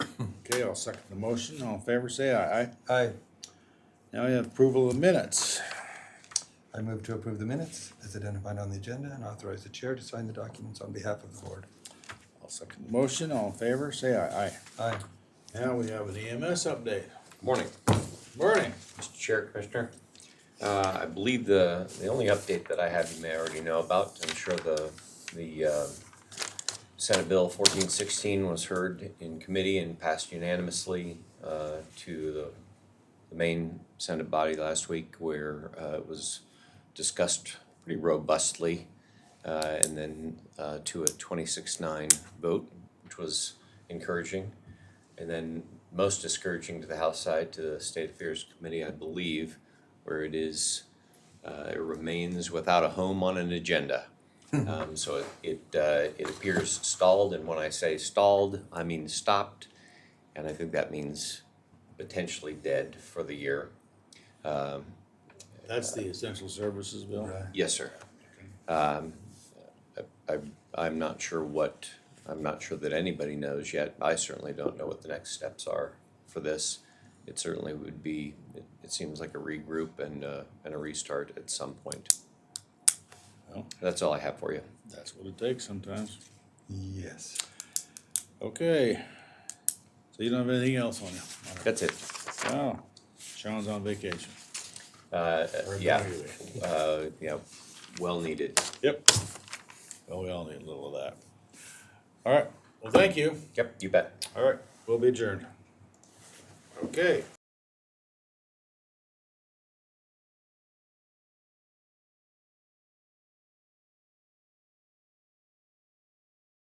Okay, I'll second the motion. All in favor, say aye. Aye. Aye. Now we have approval of minutes. I move to approve the minutes as identified on the agenda and authorize the chair to sign the documents on behalf of the board. I'll second the motion. All in favor, say aye. Aye. Aye. Now we have an EMS update. Morning, Morning. Mr. Chair, Commissioner. Uh, I believe the, the only update that I have you may already know about, I'm sure the, the, uh, Senate Bill fourteen sixteen was heard in committee and passed unanimously, uh, to the, the main Senate body last week where, uh, it was discussed pretty robustly. Uh, and then, uh, to a twenty-six nine vote, which was encouraging. And then most discouraging to the House side, to the State Affairs Committee, I believe, where it is, uh, it remains without a home on an agenda. Um, so it, it, uh, it appears stalled, and when I say stalled, I mean stopped. And I think that means potentially dead for the year. That's the essential services bill. Right. Yes, sir. Um, I, I, I'm not sure what, I'm not sure that anybody knows yet. I certainly don't know what the next steps are for this. It certainly would be, it, it seems like a regroup and, uh, and a restart at some point. Well. That's all I have for you. That's what it takes sometimes. Yes. Okay. So you don't have anything else on you? That's it. Wow. Sean's on vacation. Uh, Or yeah, anyway. uh, yeah, well needed. Yep. Well, we all need a little of that. All right. Well, thank you. Yep, you bet. All right. We'll be adjourned. Okay.